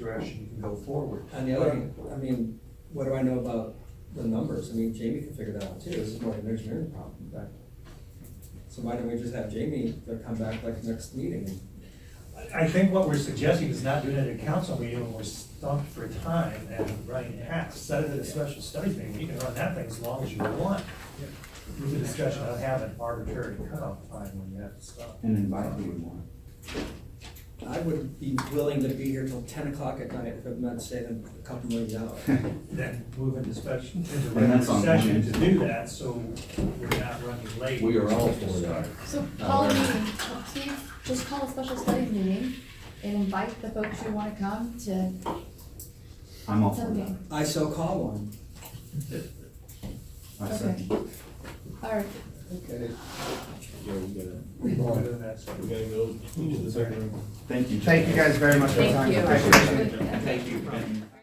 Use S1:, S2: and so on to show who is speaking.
S1: direction you can go forward.
S2: On the other hand, I mean, what do I know about the numbers? I mean, Jamie can figure that out too. This is more of an engineering problem.
S1: Right.
S2: So why don't we just have Jamie to come back like next meeting?
S3: I think what we're suggesting is not doing it at a council meeting when we're stumped for time and running hacks. Set it at a special study meeting, you can run that thing as long as you want. With the discussion of having arbitrary cutoff time when you have to stop.
S4: And invite who you want.
S2: I would be willing to be here till ten o'clock at night if I'm not saving a couple million hours.
S4: And
S3: Then move into special, into
S4: And
S3: regular
S4: that's on one
S3: session
S4: end.
S3: to do that, so we're not running late.
S5: We are all for that.
S6: So
S5: No,
S6: call a
S5: they're not.
S6: meeting, Well, Steve, just call a special study meeting and invite the folks who wanna come to
S4: I'm all for that.
S6: something.
S2: I so call one.
S4: I
S6: Okay.
S4: second.
S6: Alright,
S2: Okay.
S5: Yeah, we gotta,
S3: We're doing that, so.
S5: we gotta go into the second room.
S4: Thank you.
S7: Thank you guys very much for your
S6: thank
S7: time.
S6: you.
S7: Appreciate it.
S6: Good.